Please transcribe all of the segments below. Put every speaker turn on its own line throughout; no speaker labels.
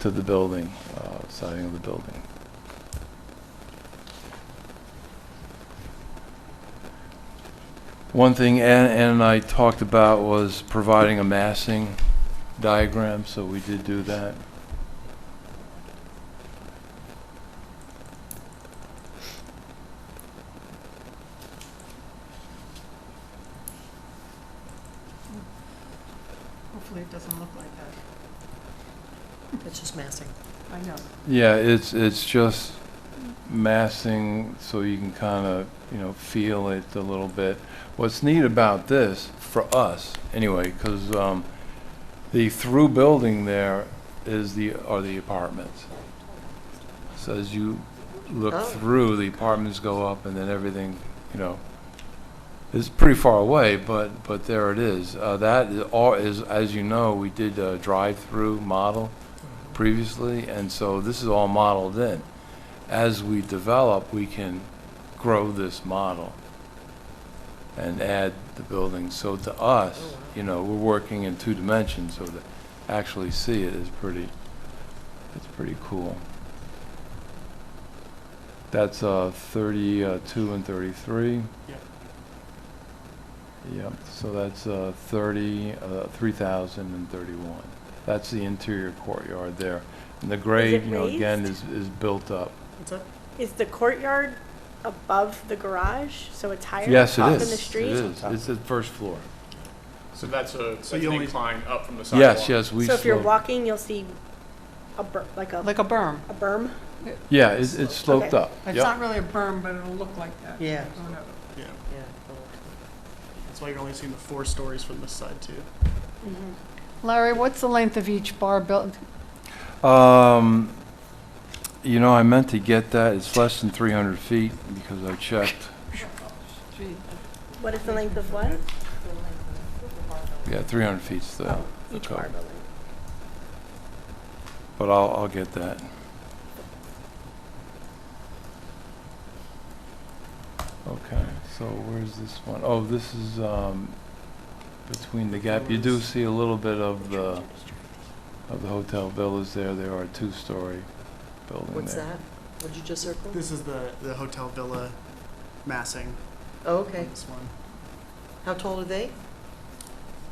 to the building, uh, siding of the building. One thing Ann Ann and I talked about was providing a massing diagram, so we did do that.
Hopefully it doesn't look like that.
It's just massing.
I know.
Yeah, it's, it's just massing so you can kind of, you know, feel it a little bit. What's neat about this, for us, anyway, because, um, the through building there is the, are the apartments. So as you look
Oh.
through, the apartments go up and then everything, you know, it's pretty far away, but, but there it is. Uh, that is, all is, as you know, we did a drive-through model Mm-hmm. previously, and so this is all modeled in. As we develop, we can grow this model and add the buildings. So to
Oh,
us,
wow.
you know, we're working in two dimensions, so to actually see it is pretty, it's pretty cool. That's uh, 32 and 33.
Yep.
Yep, so that's uh, 30, uh, 3,031. That's the interior courtyard there. And the grade,
it
you know, again, is,
raised?
is built up.
What's that?
Is the courtyard above the garage, so it's higher
Yes, it
up
is.
in the street?
It is. It's the first floor.
So that's a, that's
you
an
only-
incline up from the sidewalk.
Yes, yes, we.
so if you're
sloped-
walking, you'll see a bur- like a
Like a berm.
a berm.
Yeah, it's it's sloped
Okay.
up.
It's
Yep.
not really a berm, but it'll look like that. Oh,
Yeah.
Going up.
Yeah,
Yeah.
that's why you're only seeing the four stories from this side too.
Larry, what's the length of each bar built?
Um, you know, I meant to get that. It's less than 300 feet because I checked.
What is the length of what?
Yeah, 300 feet still.
Oh, each
Okay.
bar building.
But I'll, I'll get that. Okay, so where's this one? Oh, this is, um, between the gap. You do see a little bit of the, of the hotel villas there. There are two-story building there.
What's that? What'd you just circle?
This is the, the hotel villa massing
Oh,
on
okay.
this one,
How tall are they?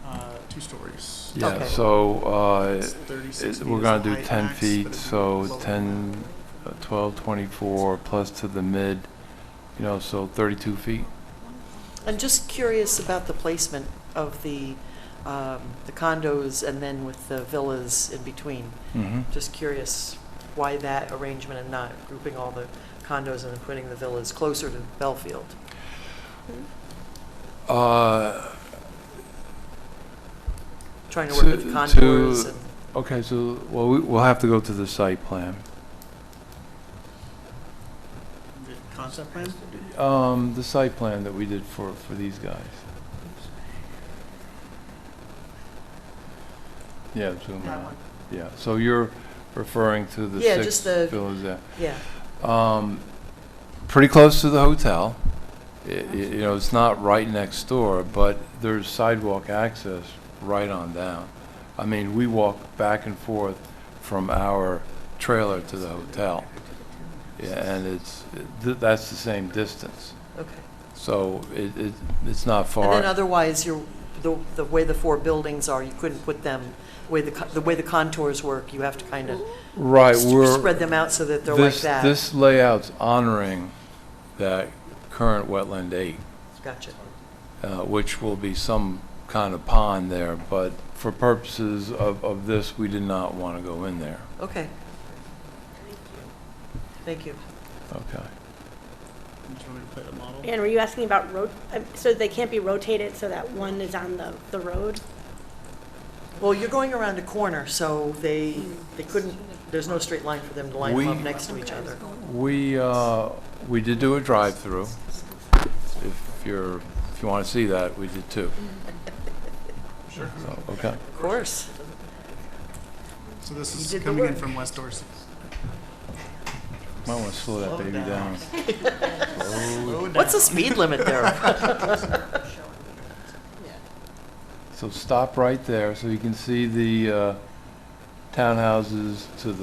uh, two stories.
Yeah,
Okay.
so, uh,
It's 36
it-
feet
we're
is
gonna
the
do
height
10
max, but
feet,
it'd be
so
lower.
10, uh, 12, 24, plus to the mid, you know, so 32 feet.
I'm just curious about the placement of the, um, the condos and then with the villas in between.
Mm-hmm.
Just curious why that arrangement and not grouping all the condos and then putting the villas closer to Belfield.
Uh,
Trying to work with the
To-
contours
to-
and,
okay, so, well, we- we'll have to go to the site plan.
The Concept plan?
Um, the site plan that we did for, for these guys. Yeah, zoom
That
out,
one.
yeah, so you're referring to the
Yeah,
six
just the-
villas there.
yeah.
Um, pretty close to the hotel. I- i- you know, it's not right next door, but there's sidewalk access right on down. I mean, we walk back and forth from our trailer to the hotel. Yeah, and it's, th- that's the same distance.
Okay.
So it, it, it's not
And
far.
then otherwise, you're, the, the way the four buildings are, you couldn't put them, way the, co- the way the contours work, you have to kind of
Right, we're,
spread them out so that they're like
this,
that.
this layout's honoring that current wetland eight.
Gotcha.
uh, which will be some kind of pond there, but for purposes of, of this, we did not want to go in there.
Okay. Thank you.
Okay.
You just want me to put a model?
And were you asking about road? uh, So they can't be rotated, so that one is on the the road.
Well, you're going around a corner, so they, they couldn't, there's no straight line for them to line them up
We-
next to each other.
We, uh, we did do a drive-through. If you're, if you want to see that, we did too.
Sure.
So, okay.
Of course.
So this
You
is
did the
coming in
work.
from West Dorset.
Might want to slow that
Slow
baby
down.
down. Slow it
What's the speed limit there?
So stop right there, so you can see the uh, townhouses to the